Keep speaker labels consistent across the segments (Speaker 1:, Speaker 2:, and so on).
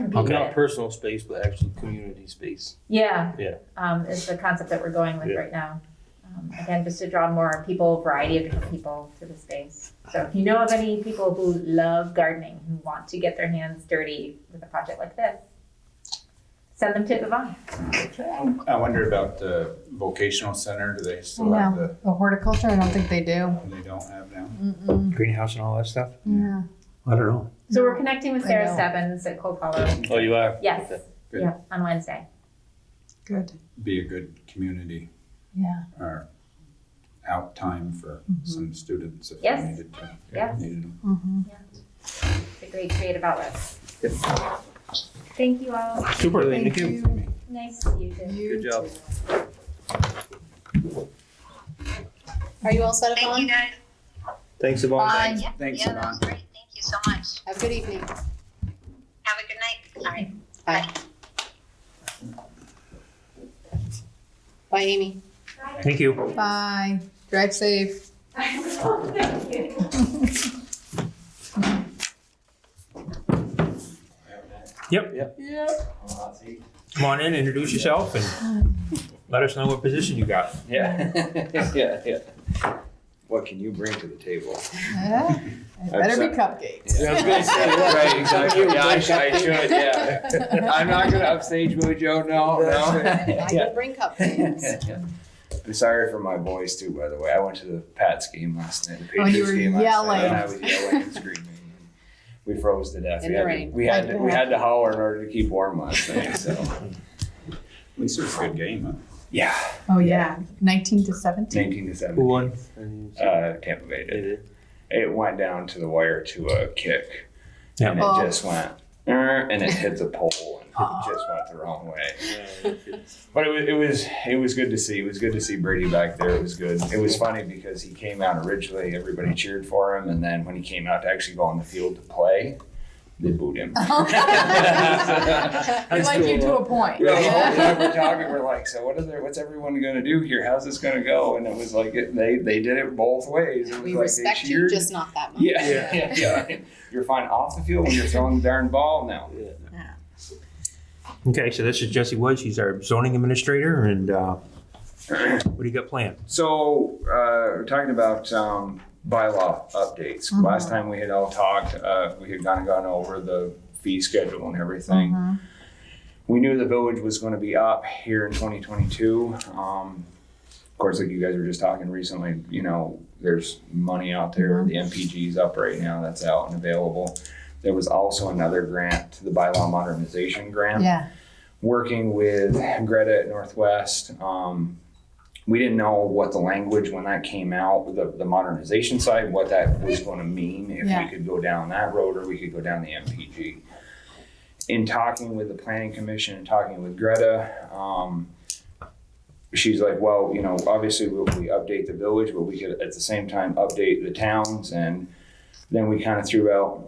Speaker 1: could be
Speaker 2: Not
Speaker 1: there.
Speaker 2: personal space, but actually community space.
Speaker 1: Yeah.
Speaker 2: Yeah.
Speaker 1: Um, is the concept that we're going with
Speaker 2: Yeah.
Speaker 1: right now. Um, again, just to draw more people, variety of different people to the space. So if you know of any people who love gardening, who want to get their hands dirty with a project like this, send them to Yvonne.
Speaker 3: I wonder about the vocational center, do they still have
Speaker 4: No,
Speaker 3: the,
Speaker 4: the horticulture, I don't think they do.
Speaker 3: they don't have now?
Speaker 4: Mm-mm.
Speaker 5: greenhouse and all that stuff?
Speaker 4: Yeah.
Speaker 5: I don't know.
Speaker 1: So we're connecting with
Speaker 4: I
Speaker 1: Sarah
Speaker 4: know.
Speaker 1: Stebbins at Cold Hollow.
Speaker 2: Oh, you are?
Speaker 1: Yes.
Speaker 2: Okay.
Speaker 3: Good.
Speaker 1: Yeah, on Wednesday.
Speaker 4: Good.
Speaker 3: Be a good community
Speaker 4: Yeah.
Speaker 3: or out time for
Speaker 4: Mhm.
Speaker 3: some students if
Speaker 1: Yes.
Speaker 3: they needed to.
Speaker 1: Yes.
Speaker 3: needed them.
Speaker 4: Mm-hmm.
Speaker 1: It's a great creative outlet. Thank you all.
Speaker 5: Super,
Speaker 4: Thank you.
Speaker 1: Nice to meet you.
Speaker 4: You
Speaker 2: Good job.
Speaker 4: Are you all set,
Speaker 6: Thank you,
Speaker 4: Yvonne?
Speaker 6: guys.
Speaker 2: Thanks, Yvonne.
Speaker 4: Bye.
Speaker 6: Yeah,
Speaker 3: Thanks,
Speaker 6: yeah, that was
Speaker 3: Yvonne.
Speaker 6: great. Thank you so much.
Speaker 4: Have a good evening.
Speaker 6: Have a good night. All right.
Speaker 4: Bye, Amy.
Speaker 5: Thank you.
Speaker 4: Bye. Drive safe.
Speaker 1: Thank you.
Speaker 4: Yep.
Speaker 5: Come on in, introduce yourself and let us know what position you got.
Speaker 7: Yeah, yeah, yeah. What can you bring to the table?
Speaker 4: Yeah. It better be cupcakes.
Speaker 7: Yeah, I was gonna say, right, exactly. Yeah, I should, I should, yeah. I'm not gonna upstage Mojo, no, no.
Speaker 4: I
Speaker 7: Yeah.
Speaker 4: can bring cupcakes.
Speaker 7: I'm sorry for my voice too, by the way. I went to the Pats game last night, the
Speaker 4: Oh, you
Speaker 7: Patriots
Speaker 4: were
Speaker 7: game last night, and I was
Speaker 4: yelling.
Speaker 7: yelling and screaming. We froze to death.
Speaker 4: In
Speaker 7: We
Speaker 4: the
Speaker 7: had to-
Speaker 4: rain.
Speaker 7: We had, to- we had to holler in order to keep warm last night, so,
Speaker 3: At least it was a good game, huh?
Speaker 7: yeah,
Speaker 4: Oh, yeah. 19 to 17.
Speaker 7: nineteen to
Speaker 2: Who
Speaker 7: seventeen.
Speaker 2: won?
Speaker 7: Uh, Tampa Bay did. It went down to the wire to a kick,
Speaker 5: Yeah.
Speaker 7: and it
Speaker 4: Oh.
Speaker 7: just went, "Er," and it hit the pole, and
Speaker 5: Oh.
Speaker 7: it just went the wrong way.
Speaker 2: Yeah.
Speaker 7: But it was, it was it was good to see. It was good to see Brady back there. It was good. It was funny because he came out originally, everybody cheered for him, and then when he came out to actually go on the field to play, they booed him.
Speaker 4: We like you to a point.
Speaker 7: We all-
Speaker 4: Yeah.
Speaker 7: we're talking. We're like, so what is there? What's everyone going to do here? How's this going to go? And it was like it, they they did it both ways. It was
Speaker 4: We
Speaker 7: like
Speaker 4: respect
Speaker 7: they
Speaker 4: you,
Speaker 7: cheered.
Speaker 4: just not that much.
Speaker 7: yeah, yeah, yeah, You're fine off the field when you're throwing the darn ball now.
Speaker 5: Okay, so this is Jesse Woods. He's our zoning administrator and uh, what do you got planned?
Speaker 7: So, uh, we're talking about um, bylaw updates.
Speaker 4: Mhm.
Speaker 7: Last time we had all talked, uh, we had kind of gone over the fee schedule and everything.
Speaker 4: Mhm.
Speaker 7: We knew the village was going to be up here in 2022. Um, of course, like you guys were just talking recently, you know, there's money out there. The MPG's up right now, that's out and available. There was also another grant, the bylaw modernization grant
Speaker 4: Yeah.
Speaker 7: working with Greta at Northwest. Um, we didn't know what the language when that came out, the, the modernization side, what that was going to mean, if
Speaker 4: Yeah.
Speaker 7: we could go down that road or we could go down the MPG. In talking with the Planning Commission and talking with Greta, um, she's like, well, you know, obviously we, we update the village, but we could at the same time update the towns. And then we kind of threw out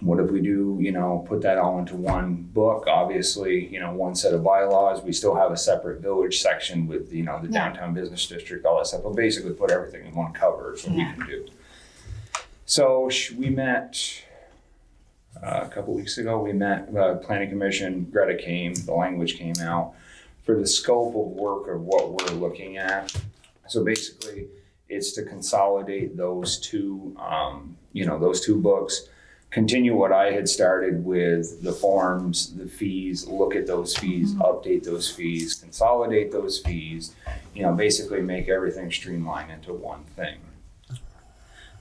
Speaker 7: what if we do, you know, put that all into one book? Obviously, you know, one set of bylaws. We still have a separate village section with, you know, the
Speaker 4: Yeah.
Speaker 7: downtown business district, all that stuff. But basically, put everything in one cover is what
Speaker 4: Yeah.
Speaker 7: we can do. So sh- we met uh, a couple weeks ago. We met uh, Planning Commission. Greta came. The language came out for the scope of work of what we're looking at. So basically, it's to consolidate those two, um, you know, those two books continue what I had started with the forms, the fees, look at those fees, update those fees, consolidate those fees, you know, basically make everything streamlined into one thing.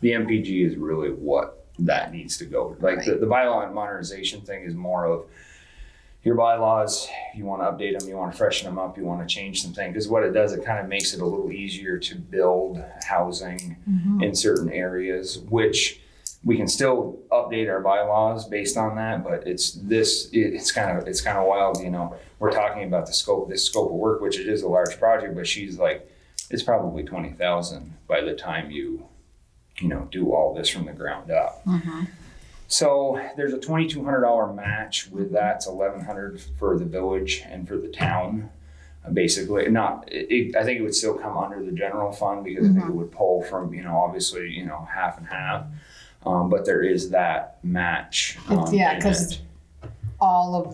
Speaker 7: The MPG is really what that needs to go. Like the, the bylaw and modernization thing is more of your bylaws, you want to update them, you want to freshen them up, you want to change some things. Because what it does, it kind of makes it a little easier to build housing in certain areas, which we can still update our bylaws based on that, but it's this, it- it's kind of, it's kind of wild, you know. We're talking about the scope, this scope of work, which it is a large project, but she's like, it's probably twenty thousand by the time you, you know, do all this from the ground up.
Speaker 4: Mhm.
Speaker 7: So there's a twenty-two hundred dollar match with that, it's eleven hundred for the village and for the town. Uh, Basically, not, it, it- I think it would still come under the general fund because I think
Speaker 4: Mm-hmm.
Speaker 7: it would pull from, you know, obviously, you know, half and half. Um, but there is that match.
Speaker 4: It's-
Speaker 7: um,
Speaker 4: yeah,
Speaker 7: in
Speaker 4: 'cause
Speaker 7: it.
Speaker 4: All of